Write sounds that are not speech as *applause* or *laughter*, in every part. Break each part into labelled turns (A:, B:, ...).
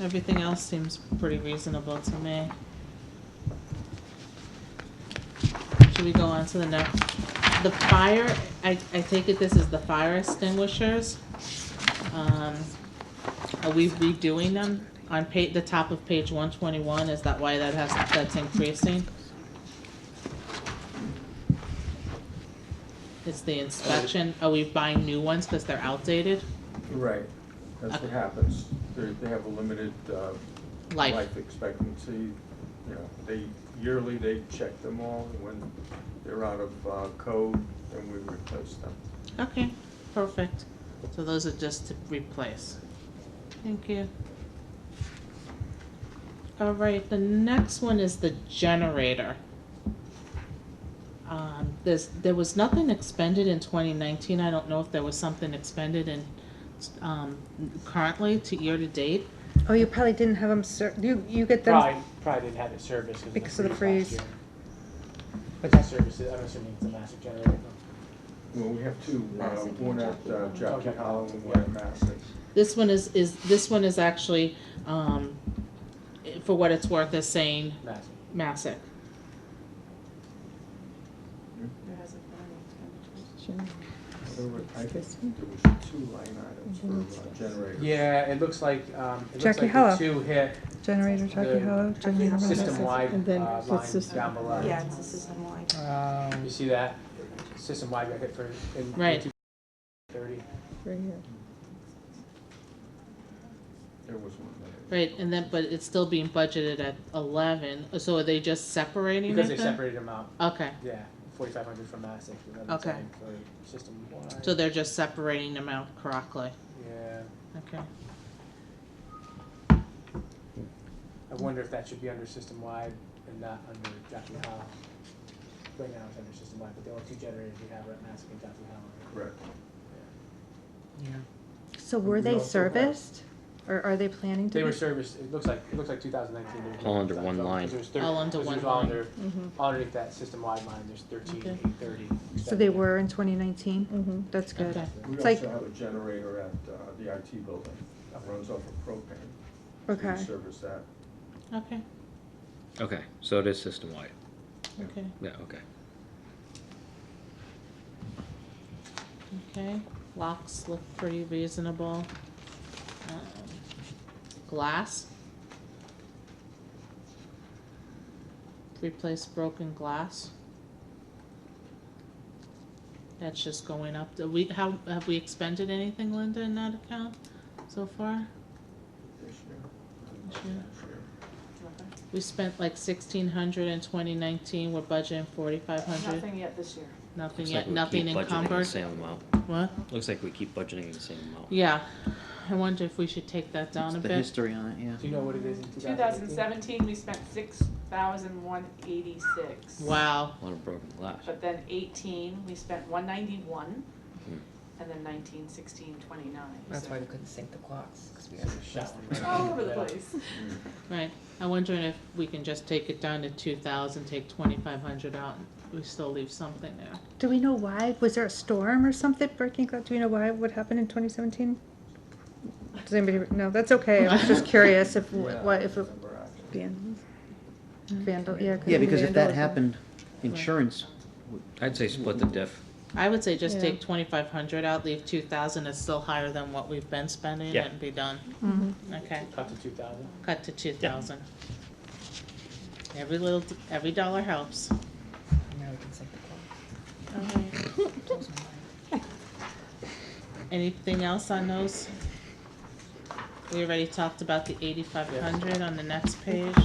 A: Everything else seems pretty reasonable to me. Should we go on to the next? The fire, I, I take it this is the fire extinguishers. Um, are we redoing them on pa- the top of page one twenty-one? Is that why that has, that's increasing? It's the inspection. Are we buying new ones because they're outdated?
B: Right, that's what happens. They're, they have a limited, uh,
A: Life.
B: expectancy, you know, they, yearly, they check them all, and when they're out of, uh, code, then we replace them.
A: Okay, perfect. So those are just to replace. Thank you. All right, the next one is the generator. Um, there's, there was nothing expended in twenty nineteen. I don't know if there was something expended in, um, currently to year to date.
C: Oh, you probably didn't have them, ser- you, you get them,
D: Probably, probably didn't have it serviced
C: Because
D: because
C: of
D: of
C: the
D: the freeze last
C: freeze.
D: year. But that service, is- I'm assuming it's a massive generator.
B: Well, we have two, uh,
E: Massac and
B: one at uh,
E: Jockey
B: Jockey
D: Hollow.
B: Hollow and one at Massac.
A: This one is, is, this one is actually, um, for what it's worth, is saying
D: Massive.
A: Massic.
E: There hasn't been any expenditures.
B: There were- I think
E: This
B: there was two line items for uh, generators.
D: Yeah, it looks like, um, it looks
C: Jackie
D: like
C: Hello.
D: the two hit
C: generator, Jackie
D: The
C: Hollow, generator.
E: Hello. System.
C: And
D: system-wide
C: then
D: uh,
C: the
D: line
C: system-
D: down below.
E: Yeah, it's a system-wide.
D: You see that? System-wide got hit for, in
A: Right.
D: thirty.
B: There was one there.
A: Right, and then, but it's still being budgeted at eleven, so are they just separating it
D: Because they
A: then?
D: separated them out,
A: Okay,
D: yeah, forty-five hundred for Massive, eleven
A: Okay.
D: ten for system-wide.
A: so they're just separating them out correctly,
D: Yeah,
A: okay.
D: I wonder if that should be under system-wide and not under Jackie Hollow. Right now it's under system-wide, but the only two generators we have are at Massive and Jackie Hollow.
B: Correct.
C: So were
B: We
C: they
B: also have-
C: serviced, or are they planning to be?
D: They were serviced, it looks like, it looks like two thousand nineteen.
F: All under one line.
A: All under one line.
C: Mm-hmm.
D: Underneath that system-wide line, there's thirteen,
A: Okay.
D: eight thirty.
C: So they were in twenty That's good.
A: Okay.
B: We
C: It's like-
B: also have a generator at uh, the IT building that runs off of propane. We
C: Okay,
B: service that.
A: Okay,
F: Okay, so it is system wide.
A: okay,
F: Yeah, okay.
A: okay, locks look pretty reasonable. Um, Glass. Replace broken glass. That's just going up, do we, how, have we expended anything, Linda, in that account so far?
B: this year.
A: This year. We spent like sixteen hundred in twenty nineteen, we're budgeting forty-five hundred,
E: Nothing yet this year.
A: nothing
F: Looks
A: yet,
F: like we
A: nothing
F: keep budgeting the
A: encumbered.
F: same amount.
A: What?
F: Looks like we keep budgeting the same amount.
A: Yeah, I wonder if we should take that down a
G: The
A: bit.
G: history on it, yeah.
D: Do you know what it is in two thousand eighteen?
H: 2017, we spent 6,186.
A: Wow,
F: A lot of broken glass.
H: But then 18, we spent 191,
F: Hmm.
H: and then 19, 16, 29.
E: Mm-hmm. That's
H: So
E: why we couldn't sync the clocks, because we had.
H: it's All over the place.
A: right, I'm wondering if we can just take it down to two thousand, take twenty-five hundred out, and we still leave something there.
C: do we know why, was there a storm or something breaking, glass? do we know why, what happened in twenty seventeen? Does anybody, no, that's okay, I was *laughs* just curious if,
B: Yeah,
C: what, if it,
B: remember actually.
C: vandal, yeah. it could
G: Yeah,
C: be
G: because if that
C: vandalism.
G: happened, insurance,
F: I'd say split the diff.
A: I would say just
C: Yeah.
A: take twenty-five hundred out, leave two thousand, it's still higher than what we've been spending
F: Yeah.
A: and be done.
C: Mhm.
A: Okay,
D: Cut to two thousand.
A: cut to two thousand. Every little, every dollar helps.
E: Now we can sync the clocks.
A: Anything else on those? We already talked about the eighty-five hundred on the next page.
E: *laughs*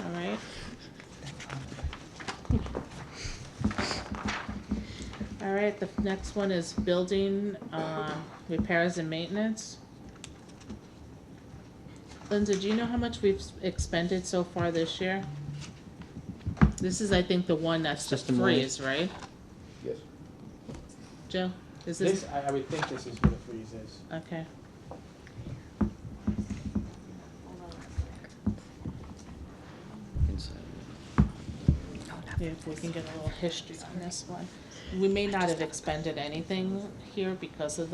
A: Alright. Alright, the next one is building, um, repairs and maintenance. Linda, do you know how much we've expended so far this year? This is, I think, the one that's the
G: System-wide.
A: freeze, right?
B: Yes.
A: Joe, is this,
D: This, I, I would think this is what a freeze is.
A: okay,
H: Hold on.
F: Inside.
A: yeah, if we can get a little history on this one. We may not have expended anything here because of